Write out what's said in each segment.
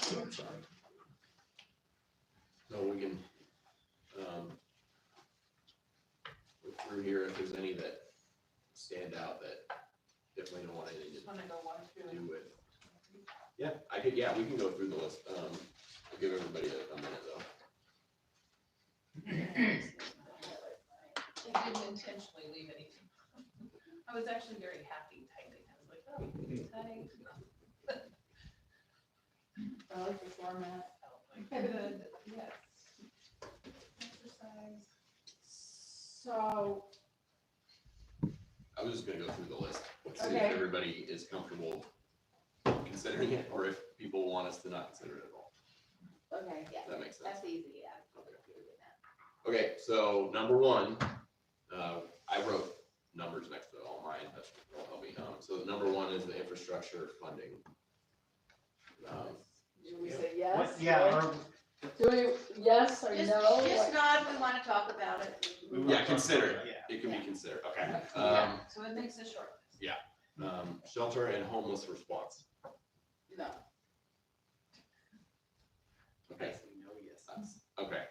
website. So we can, um, look through here if there's any that stand out that definitely don't want anything Just wanna go one, to two, do with. Yeah, I could, yeah, we can go through the list, um, I'll give everybody a a minute though. and. They didn't intentionally leave anything. I was actually very happy typing, I was like, oh, Hmm. type. I like the format. Good, yes. Exercise. So, I was just gonna go through the list, and see if Okay. everybody is comfortable considering it, or if people want us to not consider it at all. okay, yeah, If that makes sense. that's easy, yeah. Okay, so number one, uh, I wrote numbers next to all mine, that's what helped me. Um, so number one is the infrastructure funding. Um, Do we say yes? What, yeah, or Do we, yes or Just, no? just Like- nod, we wanna talk about it. we wanna Yeah, talk consider about that, It can be considered, okay. Yeah, Um, so it makes it short. um, shelter and homeless response. No. Okay, Yes, we know, yes. that's- okay,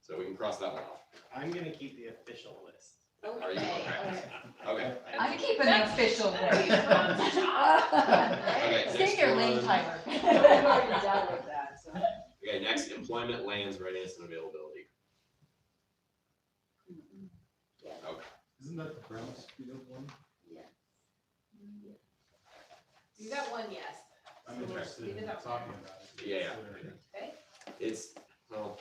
so we can cross that one off. I'm gonna keep the official list. Are you okay? Okay, I'm keeping the official That's- way. okay. Stay next your lane, one. Tyler. We've already dealt with that, so. Okay, next, employment, lands, readiness, and availability. Yes. Okay. Isn't that the Brown Street one? Yeah. You got one yes. I'm interested in talking about it. Yeah, Considering it. Okay, It's, well,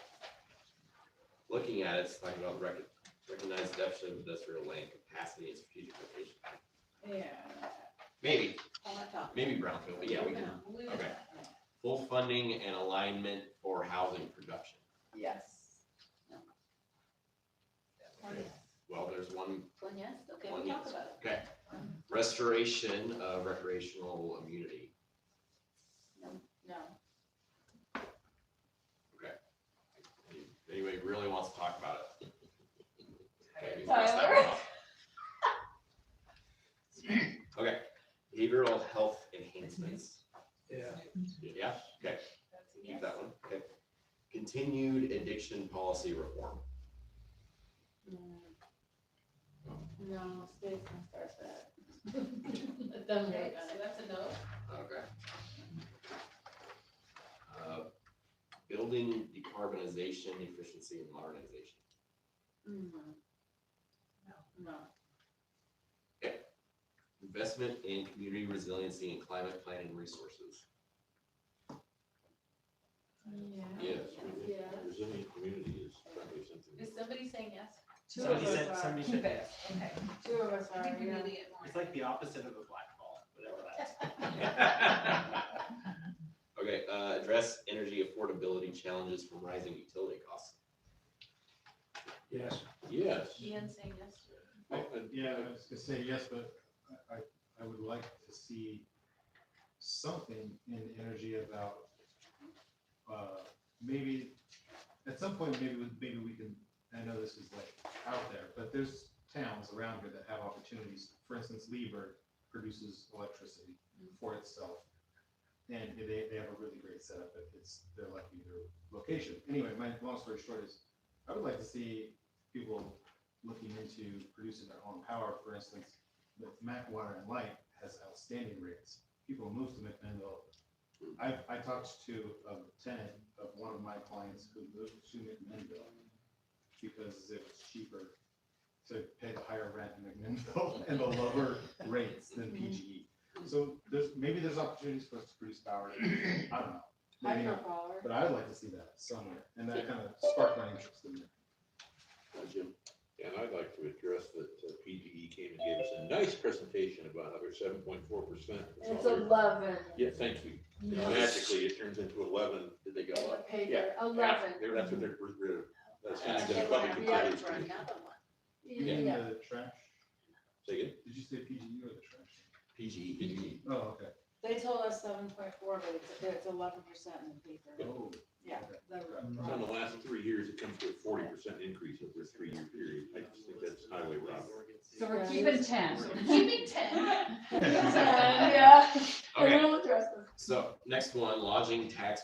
looking at it, it's talking about rec- recognize deficit of industrial land capacity and strategic location. Yeah. Maybe, I'm not talking. maybe brownfield, but yeah, we can, we'll leave it at Okay. that. full funding and alignment for housing production. Yes. One yes. Well, there's one One yes, okay, One we talk yes. about it. restoration of recreational immunity. No. If Anybody really wants to talk about it? Okay, we can cross that one Tyler, off. Okay, behavioral health enhancements. Yeah, okay, That's a keep yes. that one, okay. Continued addiction policy reform. Mm. No, Stacy starts that. It doesn't Okay, really so matter. that's a no. Okay. Uh, Building decarbonization, efficiency and modernization. Mm. No. No. Investment in community resiliency and climate planning resources. Yeah. Yes, we think Yeah. resilient community is probably something. Is somebody saying yes? Two of Somebody us said, are- somebody Keep said, it. Okay. Two of us I are, think we yeah. need to get more. it's like the opposite of a black ball, whatever that Okay, uh, address energy affordability challenges from rising utility costs. Yes. Yes. Ian saying yes. I- I- Yeah, I was gonna say yes, but I, I- I would like to see something in energy about, uh, maybe, at some point, maybe, we- maybe we can, I know this is like out there, but there's towns around here that have opportunities. For instance, Lieber produces electricity for itself. And they, they have a really great setup, but it's, they're lucky their location. Anyway, my long story short is, I would like to see people looking into producing their own power, for instance, with Mac Water and Light has outstanding rates. People move to McMinnville. I, I talked to a tenant of one of my clients who moved to McMinnville because it was cheaper to pay the higher rent in McMinnville and the lower rates than PGE. So there's, maybe there's opportunities for us to produce power. I don't know. Maybe not, Hydropower. but I would like to see that somewhere and that kind of sparked my interest in it. Uh, Jim, And I'd like to address that uh, PGE came and gave us a nice presentation about how they're seven point four percent. It's eleven. Yeah, thank you. Yeah. Magically, it turns into eleven. Did they go In the up? paper, Yeah. eleven. They're- That's what they're, they're- that's Yeah. not Yeah. the public utilities. committee. You mean the trash? Say again? Did you say PGU or the trash? PGE. Oh, okay. They told us seven point four, but it's, it's eleven percent in the paper. Oh. Yeah. So In the last three years, it comes to a forty percent increase over a three-year period. I just think that's highway robbery. So we're keeping ten. Keeping ten. Yeah, Okay, will address this. so next one, lodging tax